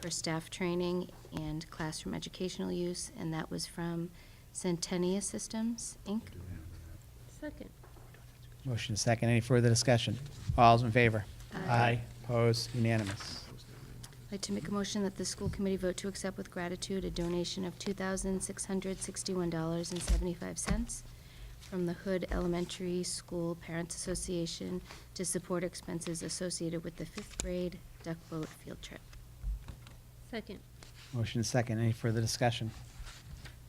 for staff training and classroom educational use, and that was from Centennia Systems, Inc. Second. Motion is second. Any further discussion? All's in favor? Aye. Opposed? Unanimous. I'd like to make a motion that the school committee vote to accept with gratitude a donation of $2,661.75 from the Hood Elementary School Parents Association to support expenses associated with the fifth grade duck boat field trip. Second. Motion is second. Any further discussion?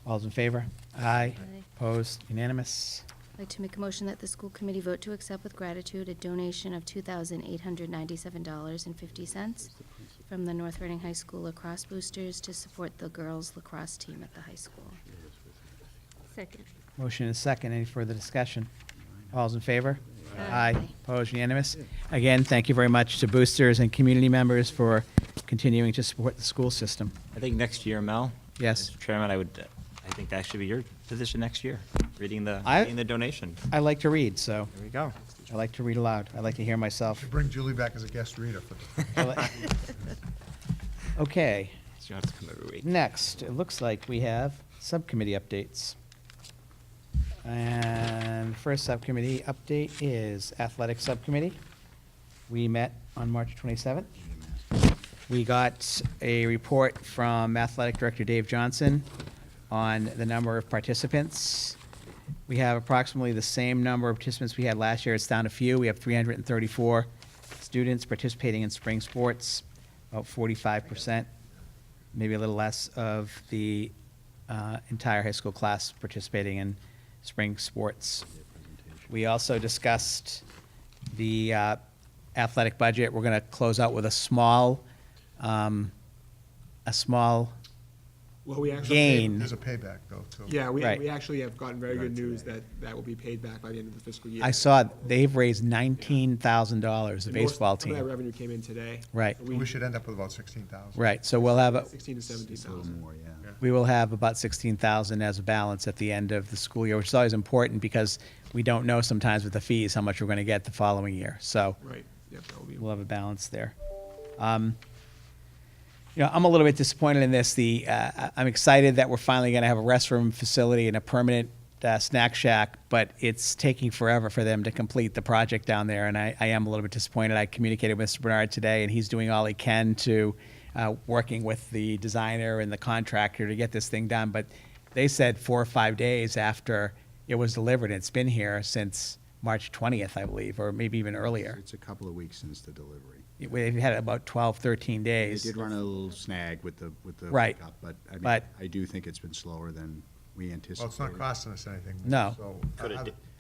All's in favor? Aye. Aye. Opposed? Unanimous. I'd like to make a motion that the school committee vote to accept with gratitude a donation of $2,897.50 from the North Reading High School lacrosse boosters to support the girls lacrosse team at the high school. Second. Motion is second. Any further discussion? All's in favor? Aye. Opposed? Unanimous. Again, thank you very much to boosters and community members for continuing to support the school system. I think next year, Mel? Yes. Mr. Chairman, I would, uh, I think that should be your position next year, reading the, I- reading the donation. I like to read, so There we go. I like to read aloud. I like to hear myself. Should bring Julie back as a guest reader for the. Okay, So you don't have to come every week. next, it looks like we have subcommittee updates. And first subcommittee update is athletic subcommittee. We met on March 27th. We got a report from Athletic Director Dave Johnson on the number of participants. We have approximately the same number of participants we had last year. It's down a few. We have 334 students participating in spring sports, about 45%, maybe a little less of the uh, entire high school class participating in spring sports. We also discussed the uh, athletic budget. We're going to close out with a small, um, a small, Well, we actually. Gain. There's a payback though, too. Yeah, we, Right. we actually have gotten very good news that that will be paid back by the end of the fiscal year. I saw they've raised $19,000, the And most- baseball Some of that team. revenue came in today. Right. So We should end up with about sixteen thousand. Right, so we'll have, a- Sixteen to seventeen thousand. we will have about 16,000 as a balance at the end of the school year, which is always important because we don't know sometimes with the fees how much we're going to get the following year. So Right, yep, that will be. we'll have a balance there. Um, You know, I'm a little bit disappointed in this. The, uh, I- I'm excited that we're finally going to have a restroom facility and a permanent uh, snack shack, but it's taking forever for them to complete the project down there, and I, I am a little bit disappointed. I communicated with Mr. Bernard today, and he's doing all he can to, uh, working with the designer and the contractor to get this thing done, but they said four or five days after it was delivered, it's been here since March 20th, I believe, or maybe even earlier. It's a couple of weeks since the delivery. We've had about 12, 13 They days. did run a little snag with the, with the. Right. pickup, But I mean, But- I do think it's been slower than we anticipated. Well, it's not costing us anything. No. so-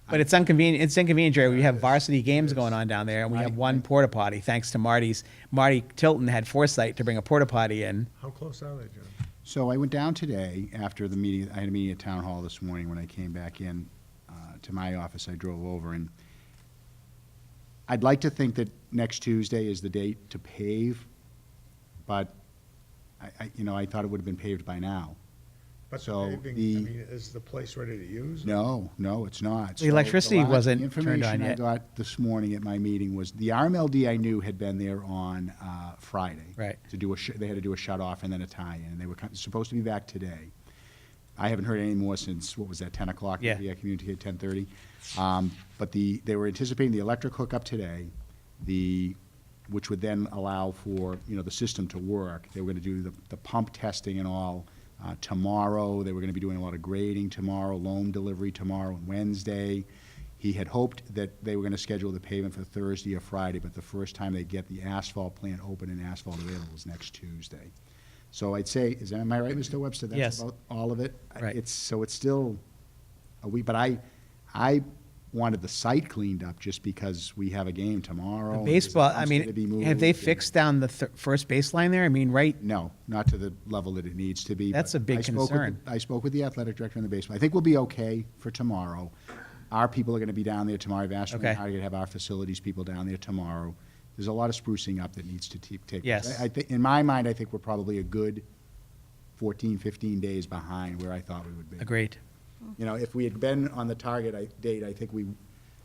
But it's inconvenient, it's inconvenient, Jerry. We have varsity games going on down there, and we have Marty- one porta potty, thanks to Marty's. Marty Tilton had foresight to bring a porta potty in. How close are they, Jim? So I went down today after the meeting, I had a meeting at Town Hall this morning. When I came back in uh, to my office, I drove over and I'd like to think that next Tuesday is the date to pave, but I, I- you know, I thought it would have been paved by now. But the So paving, I the- mean, is the place ready to use? No, no, it's not. The So electricity lot- wasn't turned on Information I yet. got this morning at my meeting was, the RMLD I knew had been there on uh, Friday. Right. To do a, sh- they had to do a shut-off and then a tie-in, and they were kind- supposed to be back today. I haven't heard any more since, what was that, 10 o'clock? Yeah. Maybe I communicated at 10:30. Um, But the, they were anticipating the electric hookup today, the, which would then allow for, you know, the system to work. They were going to do the, the pump testing and all uh, tomorrow. They were going to be doing a lot of grading tomorrow, loam delivery tomorrow and Wednesday. He had hoped that they were going to schedule the pavement for Thursday or Friday, but the first time they get the asphalt plant open and asphalt available is next Tuesday. So I'd say, is, that- am I right, Mr. Webster? Yes. That's about all of it? I- Right. It's, so it's still a week, but I, I wanted the site cleaned up just because we have a game tomorrow. The Oh, and there's a baseball, I dumpster to be mean, moved, have they and- Mm. fixed down the th- first baseline there? I mean, right, No, not to the level that it needs to be. That's but a big I spoke with the- concern. I spoke with the athletic director in the baseball. I think we'll be okay for tomorrow. Our people are going to be down there tomorrow. I've asked them Okay. how to have our facilities people down there tomorrow. There's a lot of sprucing up that needs to te- take. place. Yes. I think, in my mind, I think we're probably a good 14, 15 days behind where I thought we would be. agreed. You know, if we had been on the target I- date, I think we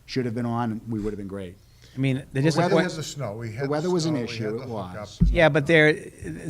should have been on, and we would have been great. I mean, The they're just, weather was the snow. We had The weather was an snow, we had issue, the it hookup. was. yeah, but they're,